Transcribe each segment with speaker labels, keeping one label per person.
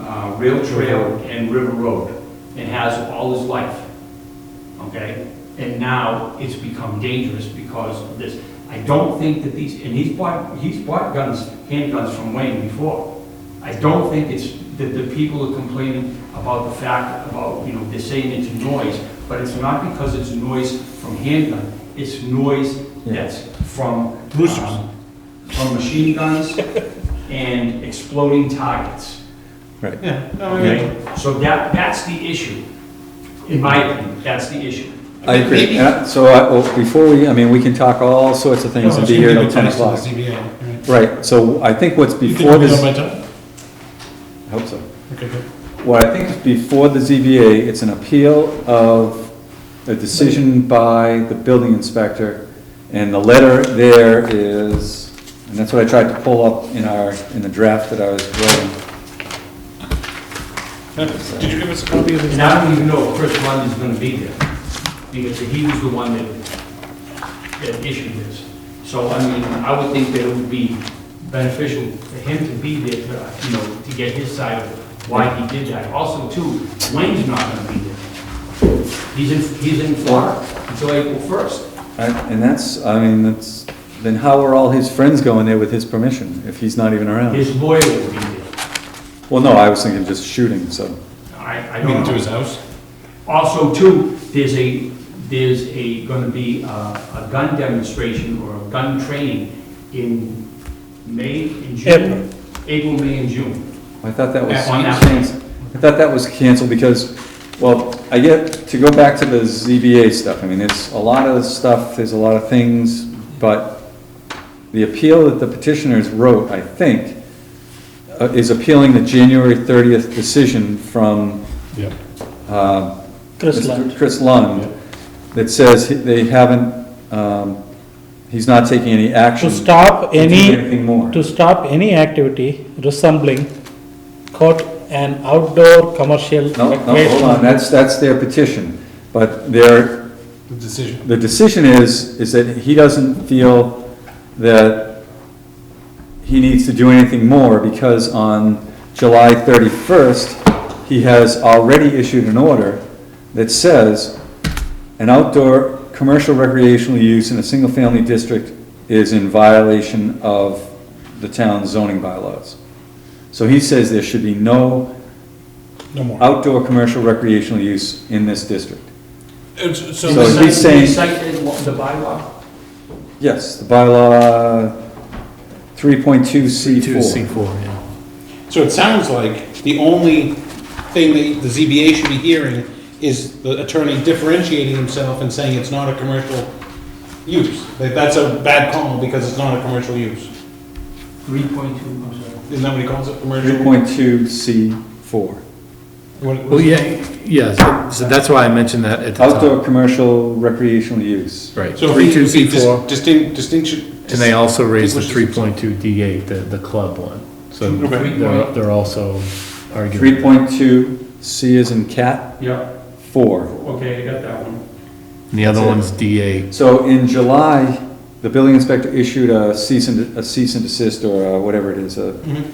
Speaker 1: uh, rail trail and river road, and has all his life, okay? And now it's become dangerous because of this. I don't think that these, and he's bought, he's bought guns, handguns from Wayne before. I don't think it's, that the people are complaining about the fact, about, you know, they're saying it's noise, but it's not because it's noise from handgun, it's noise that's from.
Speaker 2: Roosters.
Speaker 1: um, From machine guns and exploding targets.
Speaker 2: Yeah, no, I mean,
Speaker 1: Okay, so that, that's the issue, in my opinion, that's the issue.
Speaker 3: I agree.
Speaker 2: Maybe-
Speaker 3: And I- So I- well, before we, I mean, we can talk all sorts of things and
Speaker 2: no, it's
Speaker 3: be
Speaker 2: gonna
Speaker 3: here
Speaker 2: be
Speaker 3: till
Speaker 2: the
Speaker 3: 10
Speaker 2: tennis to the
Speaker 3: o'clock.
Speaker 2: ZBA, right.
Speaker 3: Right, so I think what's
Speaker 2: You think
Speaker 3: before
Speaker 2: we'll
Speaker 3: this,
Speaker 2: be
Speaker 3: I
Speaker 2: done by ten?
Speaker 3: hope so.
Speaker 2: Okay, good.
Speaker 3: What I think is before the ZBA, it's an appeal of a decision by the building inspector. And the letter there is, and that's what I tried to pull up in our, in the draft that I was writing.
Speaker 2: Uh, Did you give us a copy of this?
Speaker 1: And I don't even know if Chris Lundon's gonna be there, because he was the one that, that issued this. So, I mean, I would think that it would be beneficial for him to be there, to, you know, to get his side of why he did that. Also, too, Wayne's not gonna be there. He's in, he's in Florida until April first.
Speaker 3: I- And that's, I mean, that's, then how are all his friends going there with his permission if he's not even around?
Speaker 1: His lawyer will be there.
Speaker 3: Well, no, I was thinking just shooting, so.
Speaker 1: I, I
Speaker 2: I
Speaker 1: don't know.
Speaker 2: mean, to his house?
Speaker 1: Also, too, there's a, there's a, gonna be a, a gun demonstration or a gun training in May and June. April, May and June.
Speaker 3: I thought that was,
Speaker 1: Yeah, on that
Speaker 3: canceled. I thought that was canceled because, well, I get, to go back to the ZBA stuff, I mean, it's a lot of stuff, there's a lot of things, but the appeal that the petitioners wrote, I think, uh, is appealing the January thirtieth decision from,
Speaker 2: Yeah.
Speaker 3: uh,
Speaker 4: Chris
Speaker 3: Mr.
Speaker 4: Lund.
Speaker 3: Chris Lund, that says he- they haven't, um, he's not taking any action.
Speaker 4: To stop
Speaker 3: do
Speaker 4: any,
Speaker 3: Anything more.
Speaker 4: to stop any activity resembling quote, an outdoor commercial
Speaker 3: No, no, hold on,
Speaker 4: recreation.
Speaker 3: that's, that's their petition, but their,
Speaker 2: The decision.
Speaker 3: the decision is, is that he doesn't feel that he needs to do anything more because on July 31st, he has already issued an order that says an outdoor commercial recreational use in a single-family district is in violation of the town's zoning bylaws. So he says there should be no
Speaker 2: No more.
Speaker 3: outdoor commercial recreational use in this district.
Speaker 2: It's-
Speaker 3: So
Speaker 2: Uh, So,
Speaker 3: he's
Speaker 1: Recite-
Speaker 3: saying-
Speaker 1: recite the law- the bylaw,
Speaker 3: Yes, the bylaw three point two C four.
Speaker 5: four, yeah.
Speaker 2: so it sounds like the only thing that the ZBA should be hearing is the attorney differentiating himself and saying it's not a commercial use. That that's a bad call because it's not a commercial use.
Speaker 1: three point two, I'm sorry.
Speaker 2: Isn't that what he calls it, commercial?
Speaker 3: Three point two C four.
Speaker 2: What-
Speaker 5: Well, yeah, yeah, so- so that's why I mentioned that at the top.
Speaker 3: Outdoor commercial recreational use.
Speaker 5: Right,
Speaker 2: So
Speaker 5: three,
Speaker 2: if
Speaker 5: two,
Speaker 2: you
Speaker 5: C
Speaker 2: see
Speaker 5: four,
Speaker 2: distinct, distinction.
Speaker 5: and they also raised the three
Speaker 2: distinguishes
Speaker 5: point two D eight, the, the club one. So
Speaker 2: Okay.
Speaker 5: they're, they're also arguing.
Speaker 3: Three point two C is in cat
Speaker 1: Yeah,
Speaker 3: four.
Speaker 1: okay, I got that one.
Speaker 5: And The other
Speaker 3: That's it.
Speaker 5: one's D eight.
Speaker 3: So in July, the building inspector issued a cease and, a cease and desist or uh, whatever it is, a,
Speaker 2: Mhm.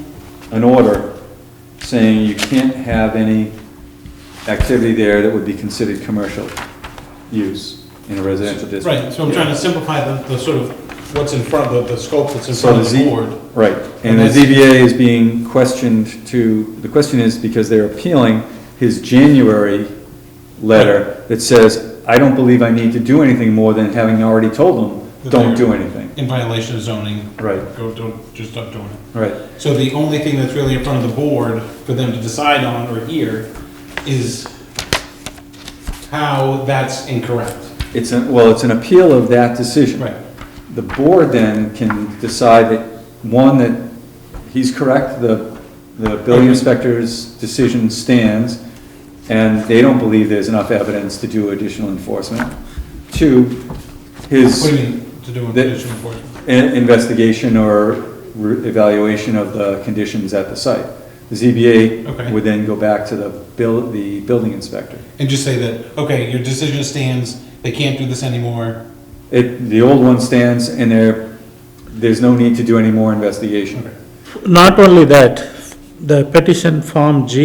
Speaker 3: an order saying you can't have any activity there that would be considered commercial use in a residential district.
Speaker 2: Right, so I'm trying to simplify the, the sort of what's in front, the, the scope that's in
Speaker 3: So
Speaker 2: front
Speaker 3: the
Speaker 2: of the
Speaker 3: Z,
Speaker 2: board.
Speaker 3: right, and
Speaker 2: And
Speaker 3: the
Speaker 2: that's-
Speaker 3: ZBA is being questioned to, the question is because they're appealing his January letter that says, I don't believe I need to do anything more than having already told them,
Speaker 2: That
Speaker 3: don't
Speaker 2: they're-
Speaker 3: do anything.
Speaker 2: In violation of zoning,
Speaker 3: Right,
Speaker 2: go, don't, just stop doing it.
Speaker 3: right,
Speaker 2: So the only thing that's really in front of the board for them to decide on or hear is how that's incorrect.
Speaker 3: it's, a- well, it's an appeal of that decision.
Speaker 2: Right.
Speaker 3: The board then can decide that, one, that he's correct, the, the building inspector's decision stands, and they don't believe there's enough evidence to do additional enforcement. Two,
Speaker 2: What do
Speaker 3: his
Speaker 2: you mean, to do a
Speaker 3: The-
Speaker 2: condition enforcement?
Speaker 3: i- investigation or re- evaluation of the conditions at the site. The ZBA
Speaker 2: Okay.
Speaker 3: would then go back to the bill, the building inspector.
Speaker 2: And just say that, okay, your decision stands, they can't do this anymore.
Speaker 3: It, the old one stands, and there, there's no need to do any more investigation.
Speaker 4: Not only that, the petition form G